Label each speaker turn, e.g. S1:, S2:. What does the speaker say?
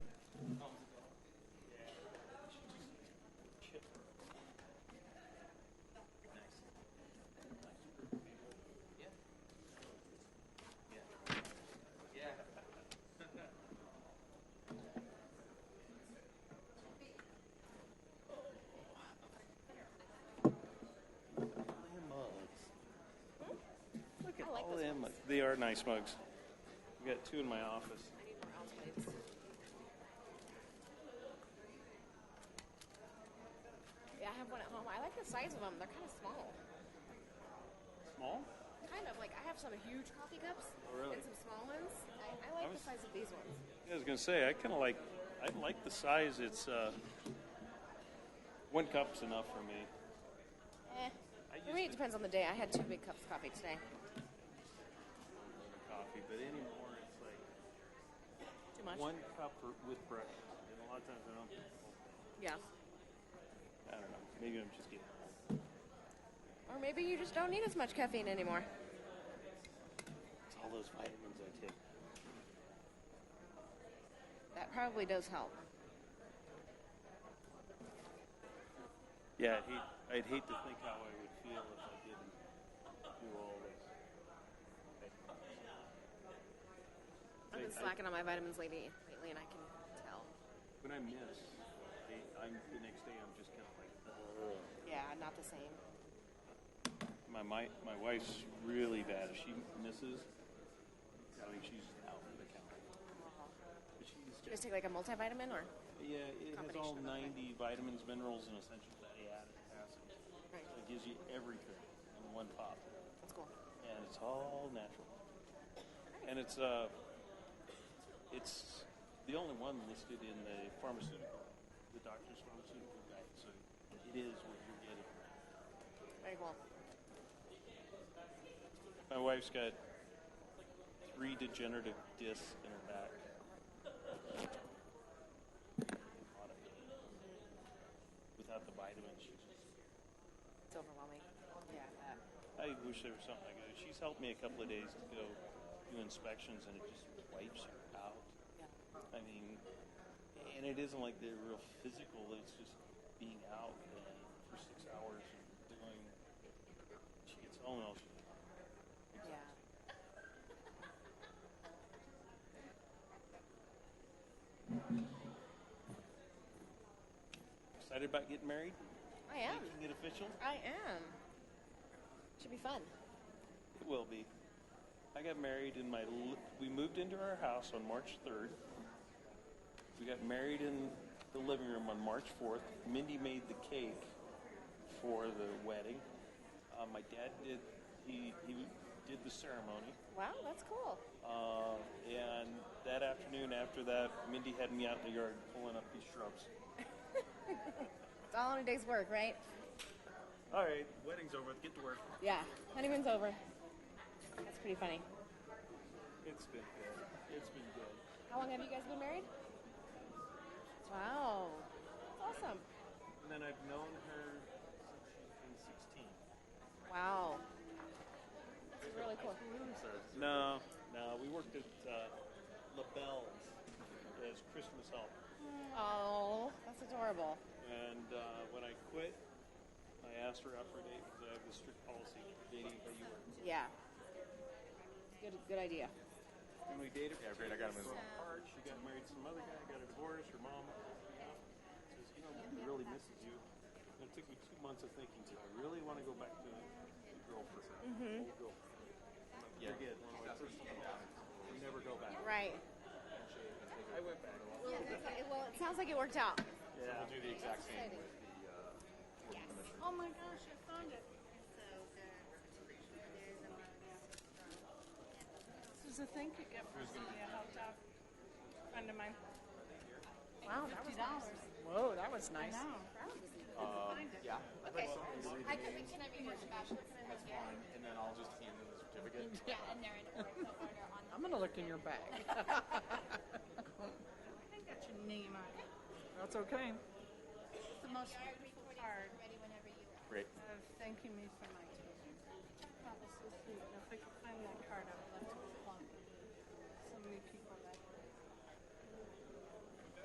S1: are nice mugs. I've got two in my office.
S2: I need more else, please. Yeah, I have one at home. I like the size of them. They're kind of small.
S1: Small?
S2: Kind of like I have some huge coffee cups
S1: Oh, really?
S2: and some small ones. I, I like
S1: I was-
S2: the size of these ones.
S1: Yeah, I was gonna say I kind of like I like the size. It's uh, one cup's enough for me.
S2: Eh.
S1: I
S2: For me, it
S1: used to
S2: depends on the day. I had two big cups of coffee today.
S1: drink coffee, but anymore it's like
S2: Too much.
S1: one cup for, with breakfast. And a lot of times I don't.
S2: Yeah.
S1: I don't know. Maybe I'm just getting old.
S2: Or maybe you just don't need as much caffeine anymore.
S1: It's all those vitamins I take.
S2: That probably does help.
S1: Yeah, I'd hate, I'd hate to think how I would feel if I didn't do all this.
S2: I've been
S1: I- I-
S2: slacking on my vitamins lately, lately, and I can tell.
S1: When I miss, they, I'm, the next day I'm just kind of like. Ugh.
S2: Yeah, not the same.
S1: My, my my wife's really bad. If she misses, I mean she's out for the count. But she's
S2: You guys
S1: just
S2: take like a multivitamin or?
S1: yeah. It has all
S2: Combination of
S1: ninety vitamins, minerals, and essential fatty acids.
S2: Right.
S1: It gives you everything in one pop,
S2: That's cool.
S1: and it's all natural. And it's uh, it's the only one listed in the pharmaceutical, the doctor's pharmaceutical guide. So it is what you're getting.
S2: Very cool.
S1: My wife's got three degenerative discs in her back. Without the vitamins, she's just,
S2: It's overwhelming. Yeah.
S1: I wish there was something I could. do. She's helped me a couple of days to go do inspections, and it just wipes her out. I mean, and it isn't like they're real physical. It's just being out and for six hours and doing. She gets home and all she
S2: Yeah.
S1: excited about getting married,
S2: I am.
S1: making it official.
S2: I am. Should be fun.
S1: It will be. I got married in my. Li- we moved into our house on March 3rd. We got married in the living room on March 4th. Mindy made the cake for the wedding. Uh, my dad did. He he did the ceremony.
S2: Wow, that's cool.
S1: Uh, and that afternoon, after that, Mindy had me out in the yard pulling up these shrubs.
S2: It's all in a day's work, right?
S1: All right, wedding's over. Get to work.
S2: Yeah. Honeymoon's over. That's pretty funny.
S1: It's been good. It's been good.
S2: How long have you guys been married? Wow. That's awesome.
S1: And then I've known her since she's been 16.
S2: Wow. That's really cool.
S1: No, no, we worked at uh, LaBelle's as Christmas help,
S2: Oh, that's adorable.
S1: and uh, when I quit, I asked her out for a date because I have a strict policy for dating where you work.
S2: Yeah. Good, good idea.
S1: And we dated.
S3: Yeah, great, I got him as
S1: so hard. She got married to some other guy, got a divorce. Her mom says, "You know, he really misses you." And it took me two months of thinking, "Do I really want to go back to a girlfriend?" Mm-hmm. Old girlfriend.
S3: Yeah.
S1: Forget. one of my first girlfriends. You never go back.
S2: Right.
S3: I went back.
S2: Well, it sounds like it worked out.
S3: We'll do the exact same
S2: exciting.
S3: with the, uh,
S2: Oh my gosh, I found it.
S4: There's a thing you get for somebody I helped out. Friend of mine.
S2: Wow, that was nice.
S4: Whoa, that was nice.
S3: yeah.
S5: Okay, I can, we can have you work back. That's
S3: Fine, and then I'll just hand them the certificate.
S5: Yeah, and they're in the order on the.
S4: I'm gonna look in your bag. I got your name on it. That's okay. It's the most
S5: Our
S4: beautiful card
S5: recordings are ready whenever you are.
S3: Great.
S4: of thanking me for my teaching. That was so sweet. And If I could find that card, I would love to plug. So many people